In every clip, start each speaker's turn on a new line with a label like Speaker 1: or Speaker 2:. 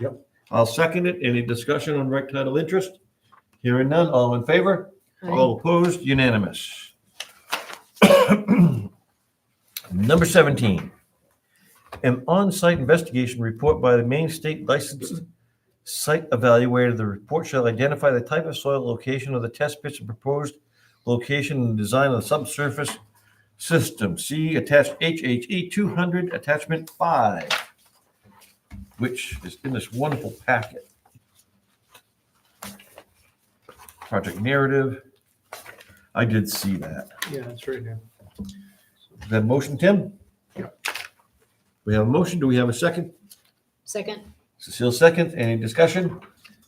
Speaker 1: Yep.
Speaker 2: I'll second it. Any discussion on rec title interest? Hearing none, all in favor? All opposed, unanimous. Number 17, an on-site investigation report by the Maine State Licensed Site Evaluator. The report shall identify the type of soil, location of the test pits, and proposed location and design of the subsurface system. See attached HHE 200, attachment 5, which is in this wonderful packet. Project narrative. I did see that.
Speaker 1: Yeah, that's right now.
Speaker 2: Is that a motion, Tim?
Speaker 1: Yeah.
Speaker 2: We have a motion. Do we have a second?
Speaker 3: Second,
Speaker 2: Cecile, second. Any discussion?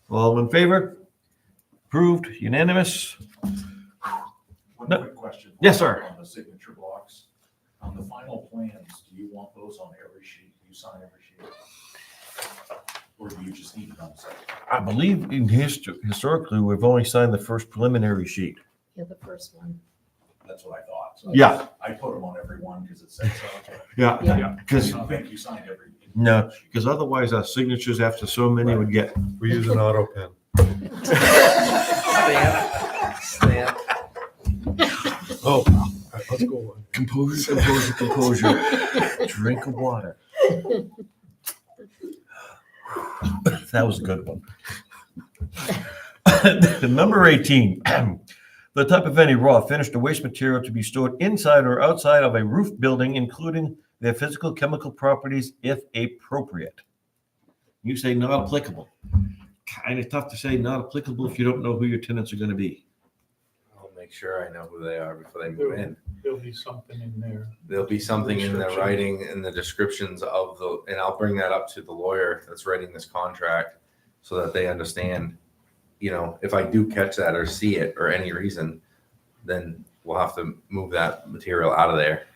Speaker 2: All in favor? Approved, unanimous.
Speaker 4: One
Speaker 2: No.
Speaker 4: quick question.
Speaker 2: Yes, sir.
Speaker 4: On the signature blocks, on the final plans, do you want those on every sheet? Do you sign every sheet? Or do you just need it on site?
Speaker 2: I believe in histo- historically, we've only signed the first preliminary sheet.
Speaker 3: yeah, the first one.
Speaker 4: That's what I thought. So I-
Speaker 2: Yeah.
Speaker 4: I put them on every one because it said so.
Speaker 2: Yeah.
Speaker 3: Yeah.
Speaker 4: Because
Speaker 2: Because,
Speaker 4: I think you signed every.
Speaker 2: no, because otherwise our signatures after so many would get,
Speaker 1: We use an auto pen.
Speaker 2: oh,
Speaker 1: All right, Let's go on.
Speaker 2: composure, composure, composure. Drink of water. That was a good one. Number 18, the type of any raw finished or waste material to be stored inside or outside of a roof building, including their physical chemical properties if appropriate. You say not applicable. Kind of tough to say not applicable if you don't know who your tenants are going to be.
Speaker 5: I'll make sure I know who they are before they move in.
Speaker 1: There'll be something in there.
Speaker 5: There'll be something in the
Speaker 1: Description.
Speaker 5: writing, in the descriptions of the, and I'll bring that up to the lawyer that's writing this contract so that they understand, you know, if I do catch that or see it or any reason, then we'll have to move that material out of there.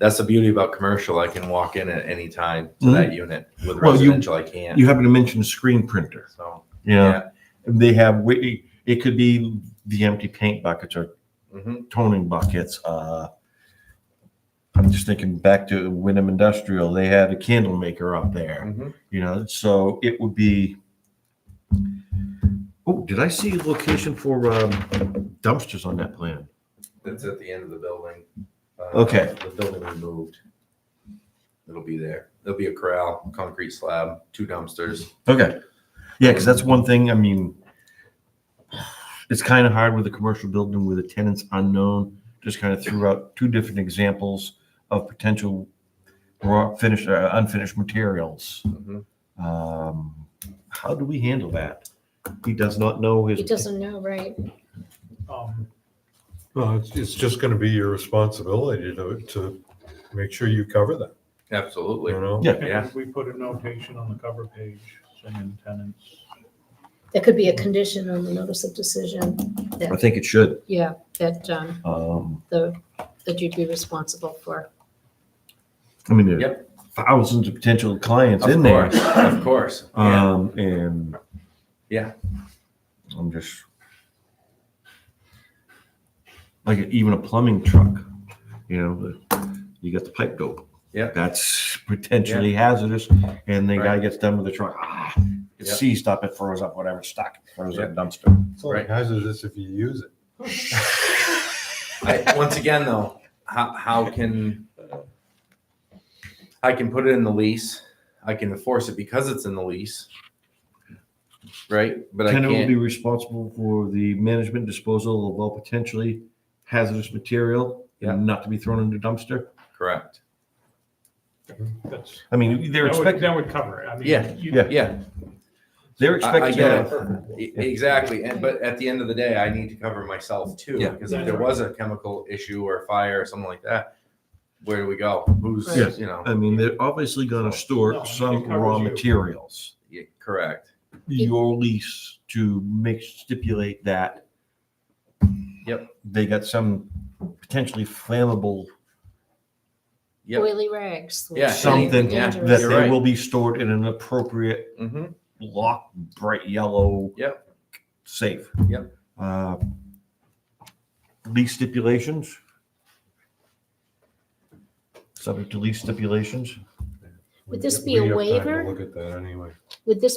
Speaker 5: That's the beauty about commercial. I can walk in at any time to that unit. With
Speaker 2: Mm-hmm. Well, you-
Speaker 5: residential, I can't.
Speaker 2: You happen to mention screen printer.
Speaker 5: So,
Speaker 2: Yeah. They have, wi- it could be the empty paint buckets or
Speaker 5: mhm.
Speaker 2: toning buckets. Uh, I'm just thinking back to Wyndham Industrial. They had a candle maker up there,
Speaker 5: Mhm.
Speaker 2: you know, so it would be. Oh, did I see a location for um, dumpsters on that plan?
Speaker 5: That's at the end of the building. Uh,
Speaker 2: Okay.
Speaker 5: The building we moved. It'll be there. There'll be a corral, concrete slab, two dumpsters.
Speaker 2: Okay. Yeah, because that's one thing. I mean, it's kind of hard with a commercial building where the tenant's unknown. Just kind of threw out two different examples of potential raw finished, uh, unfinished materials.
Speaker 5: Mhm.
Speaker 2: Um, how do we handle that? He does not know his.
Speaker 3: He doesn't know, right?
Speaker 1: Um,
Speaker 6: No, it's, it's just gonna be your responsibility to, to make sure you cover that,
Speaker 5: Absolutely.
Speaker 6: you know?
Speaker 2: Yeah.
Speaker 5: Yeah.
Speaker 1: and We put a notation on the cover page, saying tenants.
Speaker 3: There could be a condition on the notice of decision.
Speaker 2: I think it should.
Speaker 3: Yeah, that, um,
Speaker 2: Um,
Speaker 3: the, that you'd be responsible for.
Speaker 2: I mean, there are thousands of potential clients
Speaker 5: Of
Speaker 2: in there.
Speaker 5: course, of course. Yeah.
Speaker 2: Um, and.
Speaker 5: Yeah.
Speaker 2: I'm just. Like even a plumbing truck, you know, the- you got the pipe dope.
Speaker 5: Yeah.
Speaker 2: That's potentially hazardous and the guy
Speaker 5: Right.
Speaker 2: gets done with the truck, ah, it
Speaker 5: Yeah.
Speaker 2: seized up, it froze up, whatever, stuck, throws it in a dumpster.
Speaker 6: It's only
Speaker 5: Right.
Speaker 6: hazardous if you use it.
Speaker 5: I, once again, though, how, how can, I can put it in the lease, I can enforce it because it's in the lease. Right? But I
Speaker 2: Tenant will be
Speaker 5: can't,
Speaker 2: responsible for the management disposal of all potentially hazardous material
Speaker 5: Yeah.
Speaker 2: and not to be thrown in the dumpster.
Speaker 5: correct.
Speaker 1: That's,
Speaker 2: I mean, they're
Speaker 1: that would,
Speaker 2: expecting,
Speaker 1: that would cover it. I mean,
Speaker 5: Yeah,
Speaker 1: you-
Speaker 2: yeah.
Speaker 5: Yeah,
Speaker 2: they're
Speaker 5: I- I
Speaker 2: expecting
Speaker 5: get
Speaker 2: that.
Speaker 5: it. E- Exactly, and but at the end of the day, I need to cover myself too.
Speaker 2: Yeah.
Speaker 5: Because if there was a chemical issue or a fire or something like that, where do we go? Who's
Speaker 2: Yes.
Speaker 5: you know?
Speaker 2: I mean, they're obviously gonna
Speaker 1: No,
Speaker 2: store
Speaker 1: it
Speaker 2: some
Speaker 1: covers
Speaker 2: raw
Speaker 1: you.
Speaker 2: materials.
Speaker 5: Yeah, correct.
Speaker 2: your lease to make stipulate that.
Speaker 5: Yep.
Speaker 2: They got some potentially flammable
Speaker 5: Yep.
Speaker 3: Oily rags.
Speaker 5: Yeah,
Speaker 2: something
Speaker 5: yeah,
Speaker 2: that
Speaker 3: Dangerous.
Speaker 2: they
Speaker 5: right.
Speaker 2: will be stored in an appropriate
Speaker 5: hmm
Speaker 2: lock, bright yellow.
Speaker 5: Yep.
Speaker 2: Safe.
Speaker 5: Yep.
Speaker 2: Uh, lease stipulations. Subject to lease stipulations.
Speaker 3: Would this
Speaker 6: We-
Speaker 3: be a
Speaker 6: we have time to
Speaker 3: waiver?
Speaker 6: Look at that anyway.
Speaker 3: Would this